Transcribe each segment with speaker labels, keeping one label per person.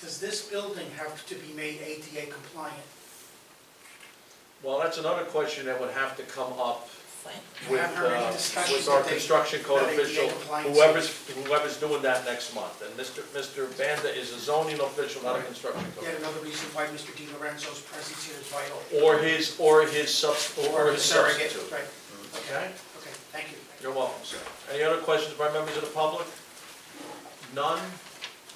Speaker 1: does this building have to be made ADA compliant?
Speaker 2: Well, that's another question that would have to come up with,
Speaker 1: Have her any
Speaker 2: uh,
Speaker 1: discussion
Speaker 2: with our
Speaker 1: today
Speaker 2: construction code
Speaker 1: about ADA
Speaker 2: official,
Speaker 1: compliance?
Speaker 2: whoever's, whoever's doing that next month. And Mr. Mr. Banda is a zoning official, not a construction
Speaker 1: Yet
Speaker 2: code.
Speaker 1: another reason why Mr. Di Lorenzo's presence here is vital.
Speaker 2: Or his, or his subs, or his
Speaker 1: surrogate,
Speaker 2: substitute.
Speaker 1: Right,
Speaker 2: Okay?
Speaker 1: okay, thank you.
Speaker 2: You're welcome, sir. Any other questions by members of the public? None?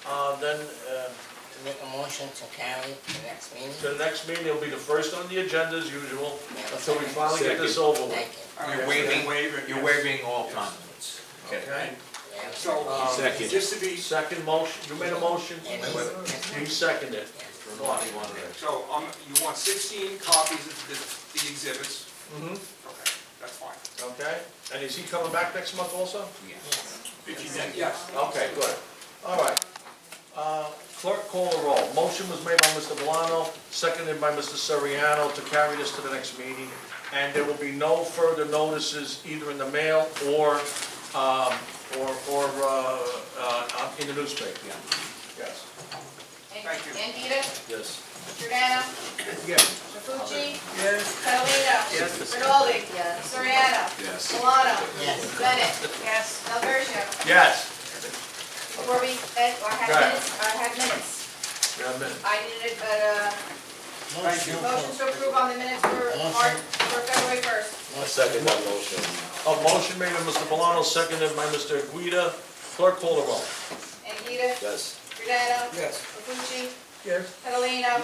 Speaker 2: Uh, Then, uh,
Speaker 3: To make a motion to carry to the next meeting?
Speaker 2: the next meeting will be the first on the agenda as usual, until we finally get this
Speaker 4: Second.
Speaker 2: over with.
Speaker 3: Thank you.
Speaker 5: All
Speaker 4: You're
Speaker 5: right.
Speaker 4: waiving, you're waiving all comments.
Speaker 2: Okay?
Speaker 3: Yeah.
Speaker 5: So,
Speaker 2: Um,
Speaker 4: Second.
Speaker 5: just to be,
Speaker 2: Second motion, you made a motion?
Speaker 3: And he's-
Speaker 2: You seconded it.
Speaker 5: so um, you want 16 copies of the- the exhibits?
Speaker 2: Mhm.
Speaker 5: Okay, that's fine.
Speaker 2: Okay, and is he coming back next month also?
Speaker 3: Yes.
Speaker 5: Yes,
Speaker 2: Okay, good, all right. Uh, Clerk, call the roll. Motion was made by Mr. Valano, seconded by Mr. Soriano to carry this to the next meeting, and there will be no further notices either in the mail or, um, or, or uh, uh, in the newspaper. Yes.
Speaker 5: Thank you.
Speaker 6: Andita,
Speaker 2: Yes.
Speaker 6: Giordano,
Speaker 2: Yes.
Speaker 6: Mafucci,
Speaker 1: Yes.
Speaker 6: Catalina.
Speaker 1: Yes.
Speaker 6: Rinaldi. Yes. Soriano.
Speaker 4: Yes.
Speaker 6: Milano.
Speaker 3: Yes.
Speaker 6: Bennett. Yes. Delversio.
Speaker 2: Yes.
Speaker 6: Before we, end or have
Speaker 2: Right.
Speaker 6: minutes, or have minutes,
Speaker 2: We have minutes.
Speaker 6: I needed a
Speaker 3: Motion.
Speaker 6: motion to approve on the minutes for
Speaker 3: Motion.
Speaker 6: March, for February first.
Speaker 4: Second that motion.
Speaker 2: A motion made by Mr. Valano, seconded by Mr. Guida. Clerk, call the roll.
Speaker 6: Andita,
Speaker 4: Yes.
Speaker 6: Giordano.
Speaker 1: Yes.
Speaker 6: Mafucci,
Speaker 2: Yes.
Speaker 6: Catalina.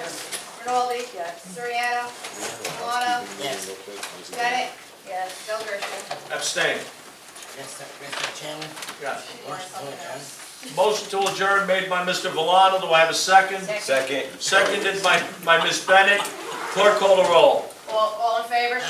Speaker 6: Rinaldi. Yes. Soriano. Milano.
Speaker 3: Yes.
Speaker 6: Bennett. Yes. Delversio.
Speaker 2: Abstain.
Speaker 3: Mr. Mr. Chairman,
Speaker 2: Yes.
Speaker 3: motion to adjourn.
Speaker 2: Motion to adjourn made by Mr. Valano, do I have a second?
Speaker 6: Second.
Speaker 4: Second.
Speaker 2: Seconded by, by Ms. Bennett. Clerk call the roll.
Speaker 6: All, all in favor?